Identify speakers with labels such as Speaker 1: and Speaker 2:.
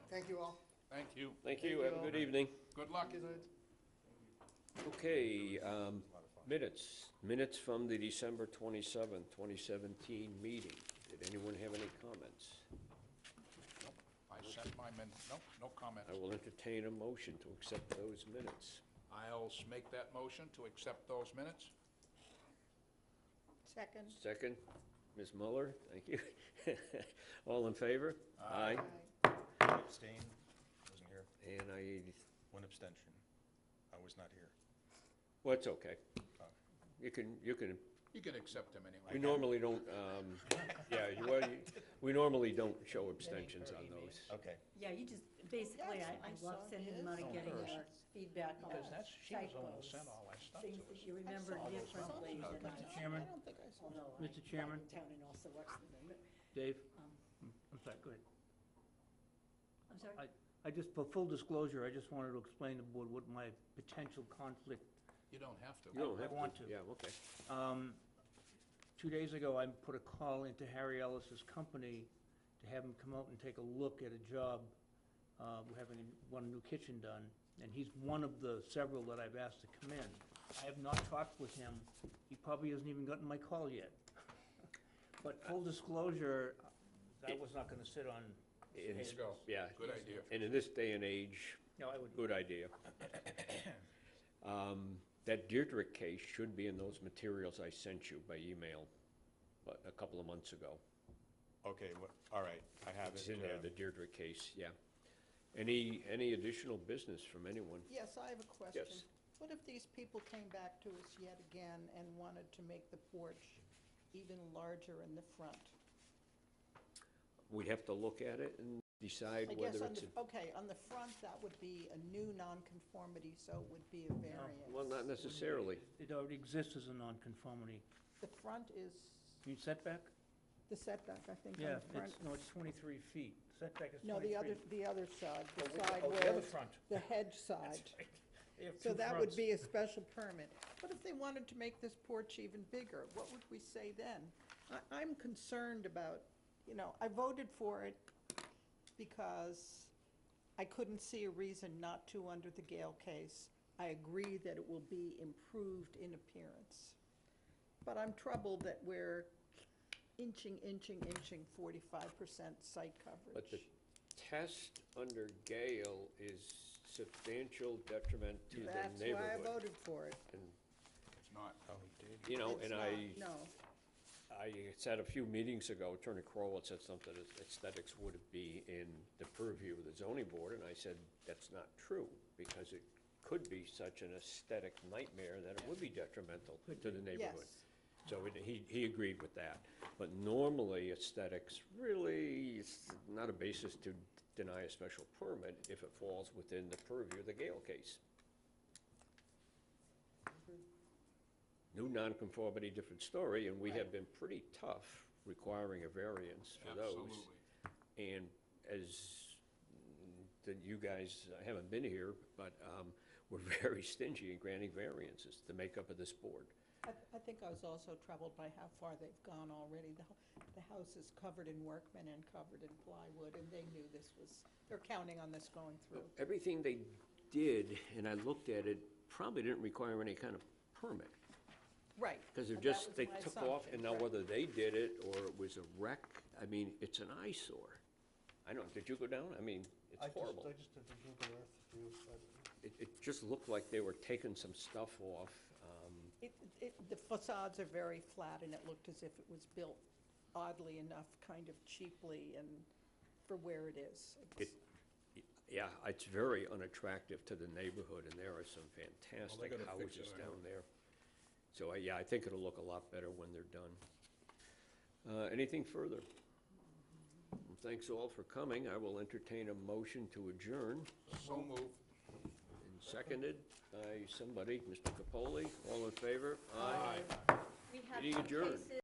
Speaker 1: Thank you all.
Speaker 2: Thank you.
Speaker 3: Thank you, have a good evening.
Speaker 2: Good luck.
Speaker 3: Okay, um, minutes, minutes from the December twenty-seventh, twenty seventeen meeting. Did anyone have any comments?
Speaker 2: I sent my min, no, no
Speaker 3: I
Speaker 2: comments.
Speaker 3: will entertain a motion to accept those minutes.
Speaker 2: I'll s- make that motion to accept those minutes.
Speaker 1: Second.
Speaker 3: Second, Ms. Muller, thank you. All in favor? Aye.
Speaker 4: Abstain, wasn't here.
Speaker 3: And I,
Speaker 4: One abstention. I was not here.
Speaker 3: well, it's okay. You can, you can,
Speaker 2: You can accept them anyway.
Speaker 3: we normally don't, um, yeah, you, well, you- we normally don't show abstentions on those.
Speaker 4: Okay.
Speaker 5: Yeah, you just, basically, I,
Speaker 1: Yes,
Speaker 5: I
Speaker 1: I
Speaker 5: love
Speaker 1: saw
Speaker 5: sending
Speaker 1: his.
Speaker 5: money,
Speaker 2: Oh,
Speaker 5: getting
Speaker 2: hers.
Speaker 5: your feedback on
Speaker 2: Because that's, she was the one who sent
Speaker 5: typos,
Speaker 2: all that stuff to
Speaker 5: Things
Speaker 2: us.
Speaker 5: that you remember
Speaker 1: saw those.
Speaker 5: differently
Speaker 2: I saw
Speaker 5: than I,
Speaker 2: those.
Speaker 6: Chairman,
Speaker 1: I don't think I saw that.
Speaker 5: although I.
Speaker 6: Mr. Chairman?
Speaker 5: live in Town and also watch the,
Speaker 6: Dave?
Speaker 5: Um,
Speaker 6: I'm sorry, go ahead.
Speaker 5: I'm sorry?
Speaker 6: I just, for full disclosure, I just wanted to explain to the board what my potential conflict,
Speaker 2: You don't have to.
Speaker 3: You don't
Speaker 6: I
Speaker 3: have to.
Speaker 6: want to.
Speaker 3: Yeah, okay.
Speaker 6: um, two days ago, I put a call into Harry Ellis's company to have him come out and take a look at a job. Uh, we're having one new kitchen done, and he's one of the several that I've asked to come in. I have not talked with him. He probably hasn't even gotten my call yet. But full disclosure, I was not gonna sit on.
Speaker 3: It is-
Speaker 2: Let's go.
Speaker 3: Yeah.
Speaker 2: Good idea.
Speaker 3: And in this day and age,
Speaker 6: No, I would,
Speaker 3: good idea. Um, That Deirdrick case should be in those materials I sent you by email a- a couple of months ago.
Speaker 4: Okay, wha- all right, I have it.
Speaker 3: It's in there,
Speaker 4: uh,
Speaker 3: the Deirdrick case, yeah. Any, any additional business from anyone?
Speaker 1: Yes, I have a question. What if these people came back to us yet again and wanted to make the porch even larger in the front?
Speaker 3: We'd have to look at it and decide
Speaker 1: I guess
Speaker 3: whether
Speaker 1: on
Speaker 3: it's,
Speaker 1: the, okay, on the front, that would be a new nonconformity, so it would be a
Speaker 3: a- well, not
Speaker 1: variance.
Speaker 3: necessarily.
Speaker 6: it already exists as a nonconformity.
Speaker 1: The front is
Speaker 6: You setback?
Speaker 1: the setback, I think,
Speaker 6: Yeah,
Speaker 1: on the front.
Speaker 6: it's, no, it's twenty-three feet. Setback is
Speaker 1: No,
Speaker 6: twenty-three.
Speaker 1: the other, the other side,
Speaker 6: Oh,
Speaker 1: the
Speaker 6: we-
Speaker 1: side
Speaker 6: oh, the
Speaker 1: where,
Speaker 6: other front.
Speaker 1: the hedge side.
Speaker 6: They have
Speaker 1: So
Speaker 6: two
Speaker 1: that
Speaker 6: fronts.
Speaker 1: would be a special permit. What if they wanted to make this porch even bigger? What would we say then? I, I'm concerned about, you know, I voted for it because I couldn't see a reason not to under the Gale case. I agree that it will be improved in appearance. But I'm troubled that we're inching, inching, inching forty-five percent site
Speaker 3: But the
Speaker 1: coverage.
Speaker 3: test under Gale is substantial detriment to the
Speaker 1: That's why I
Speaker 3: neighborhood.
Speaker 1: voted for it.
Speaker 3: And,
Speaker 2: It's not.
Speaker 4: Oh, he did.
Speaker 3: You know,
Speaker 1: It's
Speaker 3: and
Speaker 1: not-
Speaker 3: I.
Speaker 1: No.
Speaker 3: I said a few meetings ago, Attorney Crowell had said something, that aesthetics would be in the purview of the zoning board, and I said, that's not true, because it could be such an aesthetic nightmare that it would be detrimental to the neighborhood.
Speaker 1: Yes.
Speaker 3: So it- he, he agreed with that. But normally aesthetics really is not a basis to deny a special permit if it falls within the purview of the Gale case. New nonconformity, different story, and we have been pretty tough requiring a variance for those.
Speaker 2: Absolutely.
Speaker 3: And as, that you guys haven't been here, but um, we're very stingy in granting variances, the makeup of this board.
Speaker 1: I, I think I was also troubled by how far they've gone already. The, ho- the house is covered in workmen and covered in plywood, and they knew this was, they're counting on this going through.
Speaker 3: Everything they did, and I looked at it, probably didn't require any kind of permit.
Speaker 1: Right.
Speaker 3: Because they're
Speaker 1: and that was
Speaker 3: just, they
Speaker 1: my
Speaker 3: took off,
Speaker 1: assumption,
Speaker 3: and now
Speaker 1: right.
Speaker 3: whether they did it or it was a wreck, I mean, it's an eyesore. I don't, did you go down? I mean,
Speaker 7: I
Speaker 3: it's
Speaker 7: just,
Speaker 3: horrible.
Speaker 7: I just did the Google Earth view, but
Speaker 3: It, it just looked like they were taking some stuff off. um,
Speaker 1: It, it, the facades are very flat, and it looked as if it was built oddly enough, kind of cheaply and for where it is.
Speaker 3: It,
Speaker 1: It's-
Speaker 3: yeah, it's very unattractive to the neighborhood, and there are some fantastic
Speaker 2: gonna fix it,
Speaker 3: houses
Speaker 2: I
Speaker 3: down
Speaker 2: hope.
Speaker 3: there. So, I- yeah, I think it'll look a lot better when they're done. Uh, Anything further? Thanks all for coming. I will entertain a motion to adjourn.
Speaker 2: So moved.
Speaker 3: And Seconded by somebody, Mr. Capoli. All in favor? Aye.
Speaker 5: We have
Speaker 3: Meeting
Speaker 5: some
Speaker 3: adjourned.
Speaker 5: cases-